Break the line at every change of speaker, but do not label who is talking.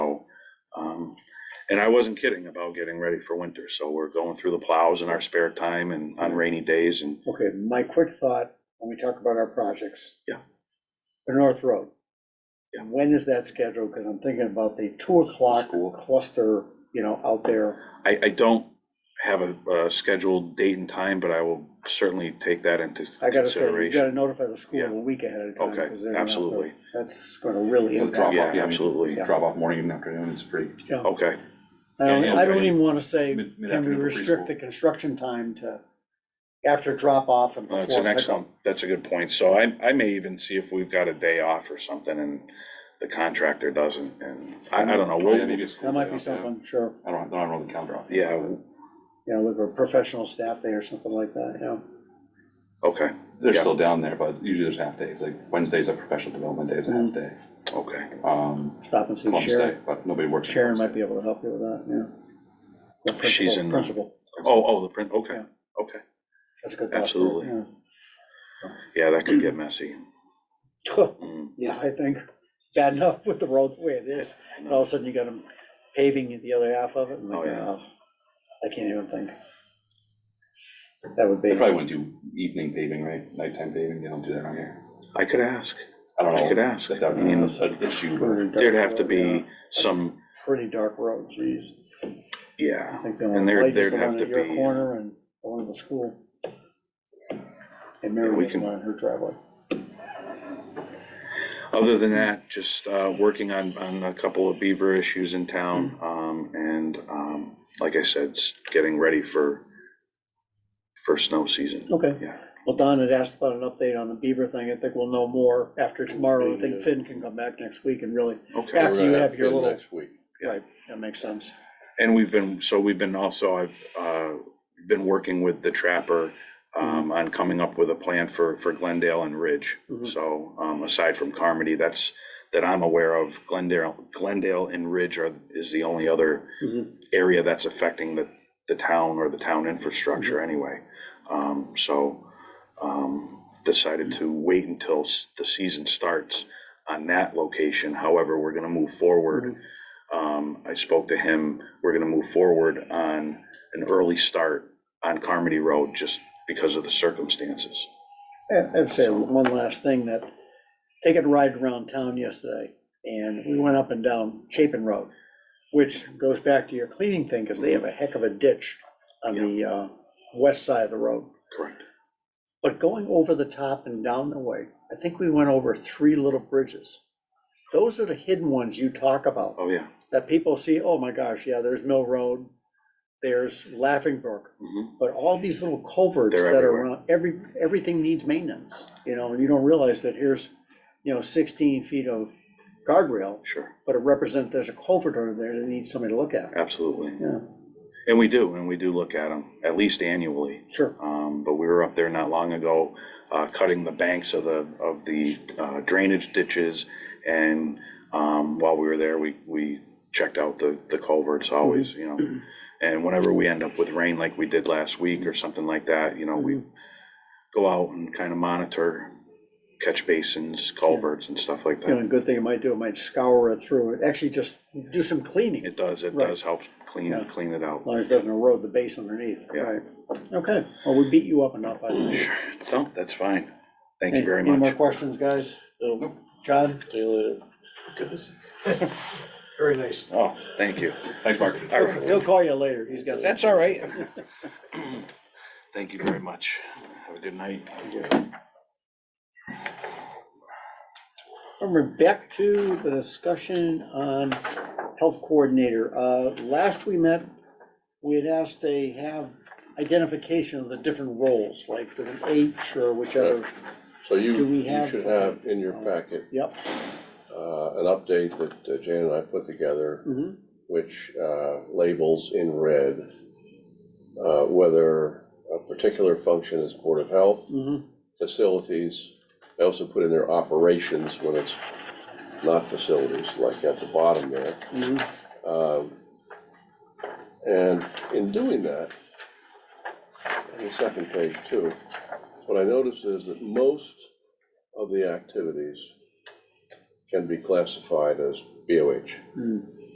Um, And I wasn't kidding about getting ready for winter, so we're going through the plows in our spare time and on rainy days and
Okay, my quick thought, when we talk about our projects.
Yeah.
The North Road.
Yeah.
When is that scheduled? Because I'm thinking about the two o'clock
School.
cluster, you know, out there.
I, I don't have a, a scheduled date and time, but I will certainly take that into
I gotta say, you
consideration.
gotta notify the school
Yeah.
a week ahead of time.
Okay,
'cause they're gonna have to-
absolutely.
That's gonna really
It'll drop
impact.
Yeah,
off, yeah, absolutely,
absolutely.
drop off morning and afternoon, it's pretty,
yeah.
Okay,
I don't,
Yeah,
I don't
okay.
even wanna say,
Mid-
can we
mid-afternoon for
restrict
preschool.
the construction time to after drop off
Uh,
and before
that's an
pickup?
excellent, that's a good point. So I, I may even see if we've got a day off or something and the contractor doesn't, and I, I don't know.
oh, yeah,
we'll-
maybe a school.
That might
day
be
off, yeah.
something, sure.
I don't, I don't know the calendar off.
Yeah,
You know, look for professional staff there or something like that, you know.
okay,
They're
Yeah.
still down there, but usually there's half days, like Wednesday's a professional development day, it's a
Mm-hmm.
half day.
okay.
Um,
Stop and see
Columbus Day,
Sharon.
but nobody works. on
Sharon might
Columbus
be able to help you with that, yeah. The principal-
She's in the-
Principal,
Oh, oh, the print, okay,
Yeah.
okay.
that's a good thought. too,
Absolutely.
yeah.
Yeah, that could get messy. Mm,
Yeah, I think, bad enough with the road the way it is,
I
and all
know.
of a sudden you got them paving the other half of it, and like,
Oh, yeah.
oh, I can't even think. That would
Day.
be,
They probably wouldn't do evening paving, right, nighttime paving, they don't do that around here,
I could ask,
I don't
I could
know,
ask.
if that would
Uh,
be an issue, but
pretty dark
There'd have to
road,
be
yeah.
some,
Pretty dark road, geez. I
yeah,
think the
And
only
there-
light is
there'd
the
have
one
to
at your
be-
corner and the one at the school. And
Yeah, we
Mary
can-
can on her driveway.
Other than that, just uh, working on, on a couple of beaver issues in town. um, And um, like I said, s- getting ready for, for snow season.
Okay.
Yeah.
Well, Don had asked about an update on the beaver thing. I think we'll know more after tomorrow. I think Finn can come back next week and really,
Okay.
after you have your little,
Next week.
right, that makes sense.
And we've been, so we've been also, I've uh, been working with the trapper um, on coming up with a plan for, for Glendale and Ridge.
Mhm.
So um, aside from Carmody, that's, that I'm aware of, Glendale, Glendale and Ridge are, is the only other
Mhm.
area that's affecting the, the town or the town infrastructure anyway. Um, so, um, decided to wait until s- the season starts on that location. However, we're gonna move forward. Um, I spoke to him, we're gonna move forward on an early start on Carmody Road just because of the circumstances.
And I'd say one last thing that, taking a ride around town yesterday, and we went up and down Chapin Road, which goes back to your cleaning thing, because they have a heck of a ditch on the, uh, west side of the road.
Correct.
But going over the top and down the way, I think we went over three little bridges. Those are the hidden ones you talk about,
Oh, yeah.
that people see, oh my gosh, yeah, there's Mill Road, there's Laughing Brook,
Mhm.
but all these little culverts
They're
that are
everywhere.
around, every, everything needs maintenance, you know, and you don't realize that here's, you know, sixteen feet of guardrail,
Sure,
but it represents, there's a culvert under there that needs somebody to look at.
absolutely.
Yeah,
And we do, and we do look at them, at least annually.
sure.
Um, but we were up there not long ago, uh, cutting the banks of the, of the uh, drainage ditches. And, um, while we were there, we, we checked out the, the culverts always,
Mm-hmm.
you know. And whenever we end up with rain like we did last week or something like that, you know, we
Mm-hmm.
go out and kind of monitor catch basins, culverts and stuff like
You know, a
that.
good thing it might do, it might scour it through, it actually just do some cleaning,
It does, it
Right.
does help clean,
Yeah.
clean it out.
as long as it doesn't erode the base underneath,
Yeah.
right? Okay, well, we beat you up enough, I think.
Sure, no, that's fine. Thank you very
Any more
much.
questions, guys?
Nope.
John?
See you later. Goodness.
Very nice.
Oh, thank you.
thanks, Mark.
All right.
He'll call you later, he's got.
That's all right. Thank you very much. Have a good night.
And we're back to the discussion on health coordinator. Uh, Last we met, we had asked they have identification of the different roles, like with an H or whichever.
So you,
Do we
you
have- Oh.
should have in your packet,
Yep.
uh, an update that uh, Jan and I put together,
mhm.
which, uh, labels in red, uh, whether a particular function is Board of Health,
Mhm.
facilities. I also put in there operations when it's not facilities, like at the bottom there.
Mhm.
Um, And in doing that, on the second page too, what I noticed is that most of the activities can be classified as BOH.
Mm.